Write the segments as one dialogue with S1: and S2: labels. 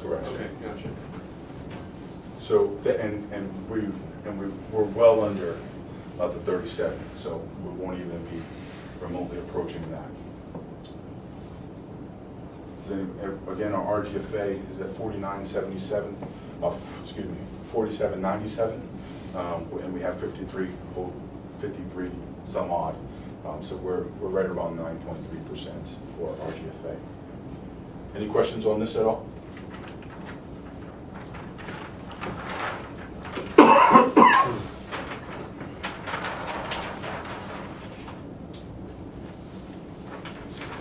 S1: direction.
S2: Okay, gotcha.
S1: So, th- and, and we, and we, we're well under uh, the 37, so we won't even be remotely approaching that. So, uh, Again, our RGFA is at 4977, uh, f- excuse me, 4797, um, and we have 53, oh, 53 some odd. Um, So we're, we're right around 9.3% for RGFA. Any questions on this at all?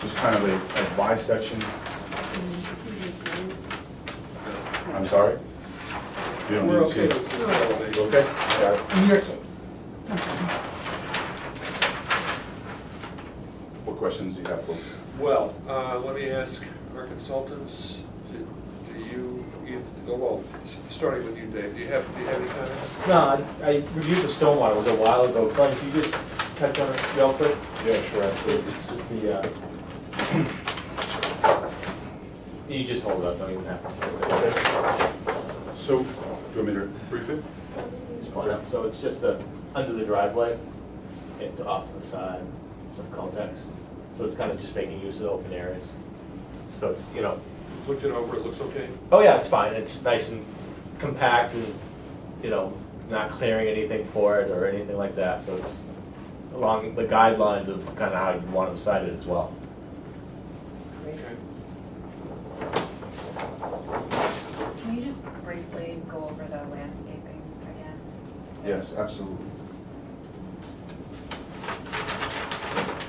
S1: Just kind of a a bisection I'm sorry? You don't
S2: We're
S1: need
S2: okay
S1: to
S2: with
S1: see.
S2: consolidation.
S1: Okay? Got it.
S3: In your case, sometimes.
S1: What questions do you have, folks?
S2: Well, uh, let me ask our consultants, do do you, you- oh, well, s- starting with you, Dave, do you have, do you have any comments?
S4: No, I- I reviewed the stormwater, it was a while ago, Glenn, can you just touch on it real quick?
S1: Yeah, sure,
S4: It's just the, uh, you just hold it up, don't even have to. hold it.
S1: So, do you want me to brief it?
S4: Just point up, so it's just the, under the driveway, it's off to the side, some context. So it's kind of just making use of the open areas. So it's, you know,
S2: Looked it over, it looks okay?
S4: Oh, yeah, it's fine, it's nice and compact and, you know, not clearing anything for it or anything like that, so it's along the guidelines of kind of how you want them cited as well.
S2: Okay.
S5: Can you just briefly go over the landscaping again?
S1: Yes, absolutely.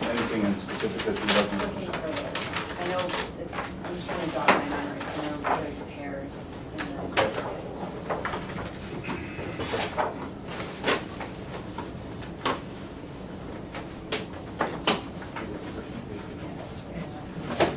S1: Anything in specific that you'd
S5: Just
S1: like me
S5: looking
S1: to
S5: for the, I know it's, I'm just trying to jog my memory, so I know there's pears in the. Yeah, that's right.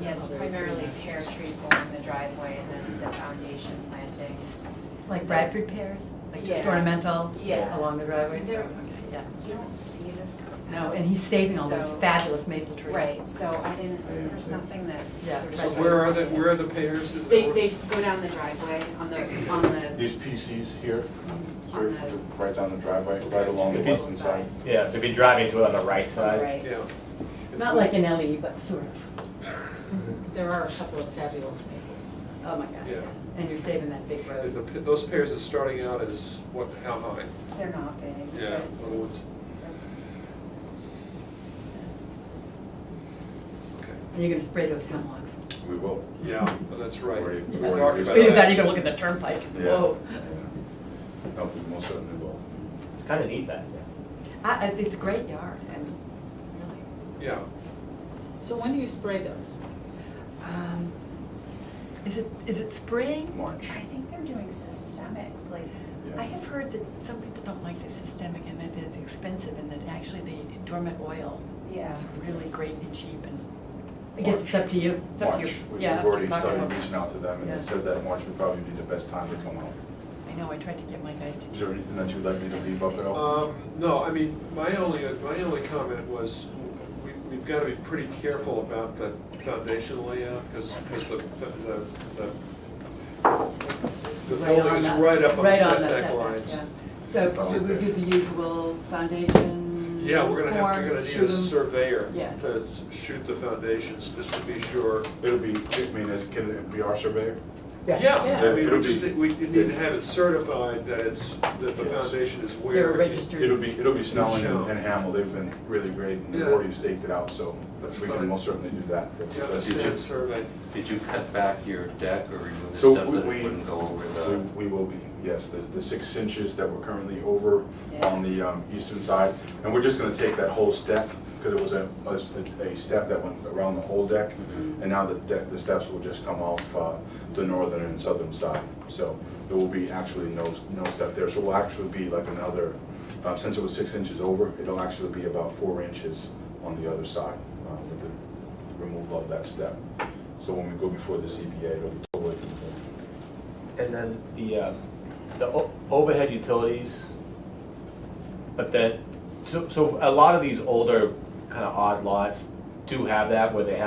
S5: Yeah, it's primarily pear trees along the driveway and then the foundation plantings.
S3: Like Bradford pears, like just
S5: Yeah.
S3: ornamental
S5: Yeah.
S3: along the driveway.
S5: They're-
S3: Yeah.
S5: You don't see this.
S3: No, and he's saving all those
S5: so-
S3: fabulous maple trees.
S5: Right, so I didn't, there's nothing that
S3: Yeah.
S5: sort of.
S2: So
S5: shows
S2: where are the,
S5: this.
S2: where are the pairs? that-
S5: They, they go down the driveway on the, on
S1: do?
S5: the,
S1: These PCs here, so
S5: on
S1: we're right down the driveway, right along the
S4: Okay.
S1: western side.
S4: Yeah, so if you're driving to it on the right
S5: the, on the
S4: side.
S5: right.
S2: Yeah.
S3: Not like an LE, but sort of.
S6: There are a couple of fabulous maples.
S3: Oh, my God.
S2: Yeah.
S3: And you're saving that big
S2: Uh, The-
S3: road.
S2: the- Those pairs are starting out as what, how high?
S5: They're not big.
S2: Yeah,
S5: but
S2: well, it's-
S5: it's-
S2: Okay.
S3: And you're gonna spray those hemlocks.
S1: We will.
S2: Yeah, oh, that's right.
S1: Where you-
S2: We
S1: where you
S2: talked
S1: use
S2: about
S1: that.
S3: Either that,
S2: that.
S3: or you're gonna look at the turnpike.
S1: Yeah.
S3: Whoa.
S1: Yeah. No, we most certainly will.
S4: It's kind of neat that.
S3: I, I, it's a great yard and really.
S2: Yeah.
S6: So when do you spray those?
S3: Um, Is it, is it spring?
S1: March.
S5: I think they're doing systemic, like,
S1: Yeah.
S7: I have heard that some people don't like the systemic and that it's expensive and that actually the dormant oil
S5: yeah.
S7: is really great and cheap and
S3: I guess it's up to you, it's up to you.
S1: March. We-
S3: Yeah,
S1: We've already
S3: market
S1: started
S3: it.
S1: reaching out to them, and
S3: Yeah.
S1: they said that March would probably be the best time to come out.
S7: I know I tried to get my guys to do.
S1: Is there anything that you'd like me to
S7: systemic
S1: leave up at all?
S2: Um, No, I mean, my only, uh, my only comment was, we- we've got to be pretty careful about the foundation layout, because, the, the, the- the
S3: Right
S2: building
S3: on
S2: is
S3: that-
S2: right up on the
S3: on
S2: setback lines.
S3: yeah. So should we do the usual foundation?
S2: Yeah, we're gonna have, we're gonna need
S3: forms,
S2: a
S3: shoot 'em?
S2: surveyor
S3: Yeah.
S2: to s- shoot the foundations, just to be sure.
S1: It'll be, I mean, is- can it be our surveyor?
S2: Yeah, I mean,
S1: It'll
S2: we just,
S1: be-
S2: we need to have it certified that it's, that the
S1: Yes.
S2: foundation is where.
S3: They're
S2: it-
S3: registered.
S1: It'll be, it'll be Snelling
S2: Sure.
S1: and Hamill, they've been really great, and they've
S2: Yeah.
S1: already staked it out, so
S2: That's
S1: we
S2: fine.
S1: can most certainly do that.
S2: Yeah, that's
S8: Did you-
S2: the survey.
S8: Did you cut back your deck or remove the
S1: So
S8: stuff that
S1: we-
S8: it wouldn't go over
S1: We
S8: the?
S1: we will be, yes, the, the six inches that we're currently over
S5: Yeah.
S1: on the um, eastern side, and we're just gonna take that whole step, because it was a, a- a step that went around the whole deck, and now the deck, the steps will just come off uh, the northern and southern side, so there will be actually no, no step there, so we'll actually be like another, uh, since it was six inches over, it'll actually be about four inches on the other side uh, with the removal of that step. So when we go before the CBA, it'll be totally conformed.
S4: And then the, uh, the o- overhead utilities, but then, so, so a lot of these older kind of odd lots do have that where they have